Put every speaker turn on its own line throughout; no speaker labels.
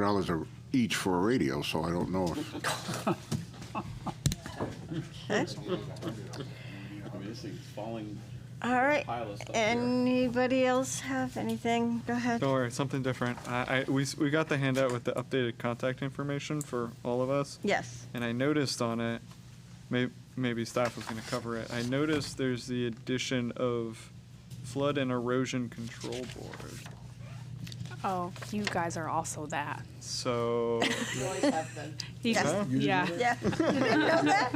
dollars a- each for a radio, so I don't know if,
I mean, this thing's falling.
All right.
Pile of stuff here.
Anybody else have anything? Go ahead.
Don't worry, something different. I, I we s- we got the handout with the updated contact information for all of us,
Yes.
and I noticed on it, may, maybe staff was going to cover it. I noticed there's the addition of flood and erosion control board.
Oh, you guys are also that.
So
You
Yes.
just- Yeah.
Yeah. You didn't know that?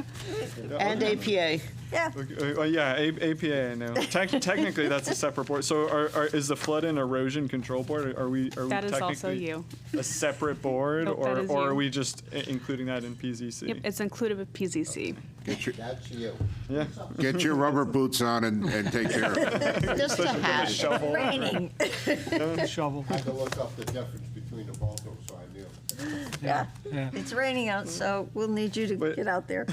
And APA.
Yeah.
okay, uh, yeah, A, APA. I know. Tec- technically, that's a separate board. So are, are, is the flood and erosion control board? Are we are
That
we
is
technically
also you.
a separate board,
Nope, that
or
is
or are
you.
we just i- including that in PZC?
Yep, it's included with PZC.
get your,
That's you.
yeah.
get your rubber boots on and, and take care of it.
Just a hat.
Shovel.
Raining.
Shovel.
I had to look up the difference between the both of them, so I knew.
Yeah.
Yeah.
It's raining out, so we'll need you to
But-
get out there.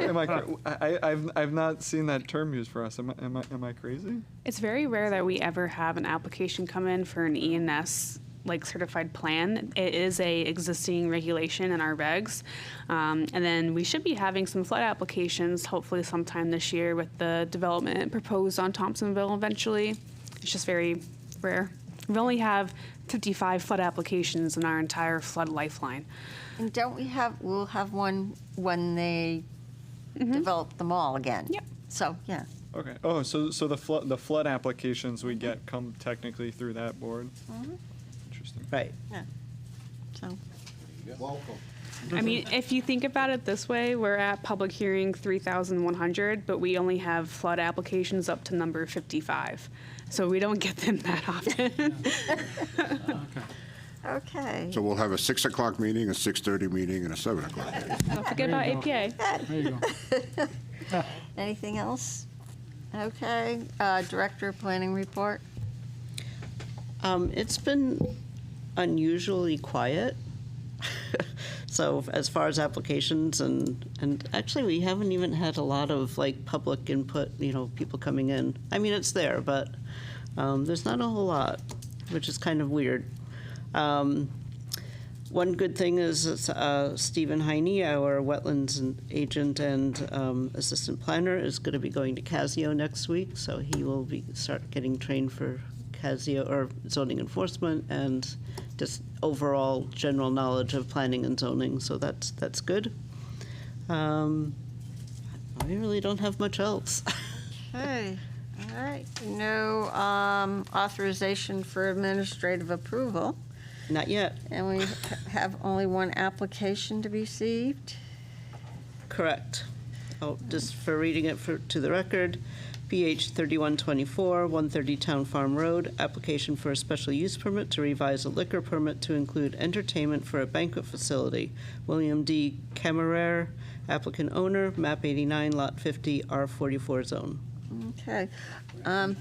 Am I, cra- I, I- I've, I've not seen that term used for us. Am I, am I, am I crazy?
It's very rare that we ever have an application come in for an ENS like certified plan. It is a existing regulation in our regs. Um, and then we should be having some flood applications hopefully sometime this year with the development proposed on Thompsonville eventually. It's just very rare. We only have 55 flood applications in our entire flood lifeline.
And don't we have, we'll have one when they develop them all again.
Yep.
So, yeah.
Okay. Oh, so, so the flood, the flood applications we get come technically through that board? Interesting.
Right.
So,
Welcome.
I mean, if you think about it this way, we're at public hearing 3,100, but we only have flood applications up to number 55. So we don't get them that often.
okay.
So we'll have a 6 o'clock meeting, a 6:30 meeting, and a 7 o'clock meeting.
don't forget about APA.
There you go.
Anything else? Okay. Uh, Director of Planning Report?
Um, it's been unusually quiet. So as far as applications and, and actually, we haven't even had a lot of like public input, you know, people coming in. I mean, it's there, but, um, there's not a whole lot, which is kind of weird. Um, One good thing is it's, uh, Stephen Heine, our wetlands and- agent and um, assistant planner, is going to be going to Casio next week, so he will be, start getting trained for Casio or zoning enforcement and just overall general knowledge of planning and zoning, so that's, that's good. Um, I really don't have much else.
Okay. All right. No um, authorization for administrative approval.
Not yet,
And we have only one application to be received.
correct. Oh, just for reading it for, to the record, PH 3124, 130 Town Farm Road, application for a special use permit to revise a liquor permit to include entertainment for a banquet facility. William D. Camerer, applicant owner, map 89, lot 50, R44 zone.
Okay. Um,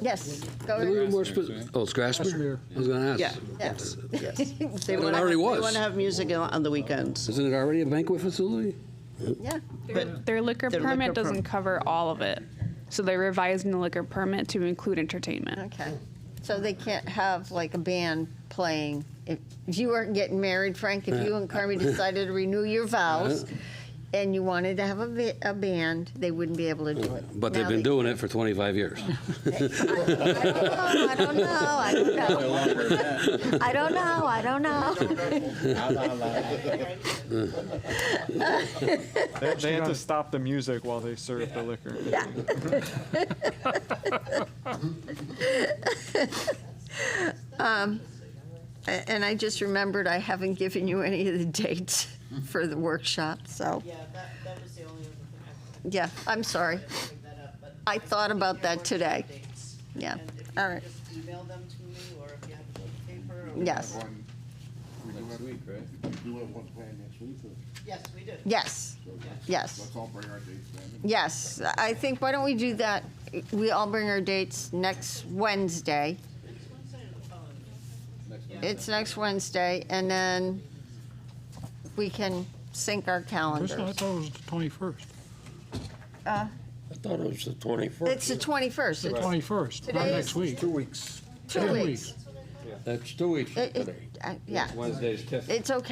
Yes, go
A little
ahead.
more spec- oh, it's Grassmere? I was gonna
Yeah.
ask.
Yes.
They
Well, it
want to
already was.
They want to have music on on the weekends.
Isn't it already a banquet facility?
Yeah.
Their- Their liquor
Their liquor
permit
per-
doesn't cover all of it. So they're revising the liquor permit to include entertainment.
Okay. So they can't have like a band playing. If if you weren't getting married, Frank, if you and Carmy decided to renew your vows and you wanted to have a, ba- a band, they wouldn't be able to do it.
But they've
Now
been
they-
doing it for 25 years.
I don't know, I don't know, I don't know. I don't know, I don't know.
They, they have to stop the music while they serve the liquor.
A- And I just remembered I haven't given you any of the dates for the workshop, so,
Yeah, that, that was the only other thing I
yeah, I'm sorry.
could bring that up, but.
I thought about that today. Yeah,
And if you
all right,
could just email them to me, or if you have it on paper, or.
yes,
Next week, right?
Do we have one planned next week?
Yes, we do.
yes, yes,
all bring our dates then.
yes. I think, why don't we do that? We all bring our dates next Wednesday. It's next Wednesday, and then we can sync our
First, I
calendars.
thought it was the 21st.
Uh,
I thought it was the 21st.
It's the 21st, it's
21st, not
Today
next
is-
week.
Two weeks.
two weeks.
That's two weeks from
It- it-
today.
I- Yeah.
Wednesday's TIF.
It's okay.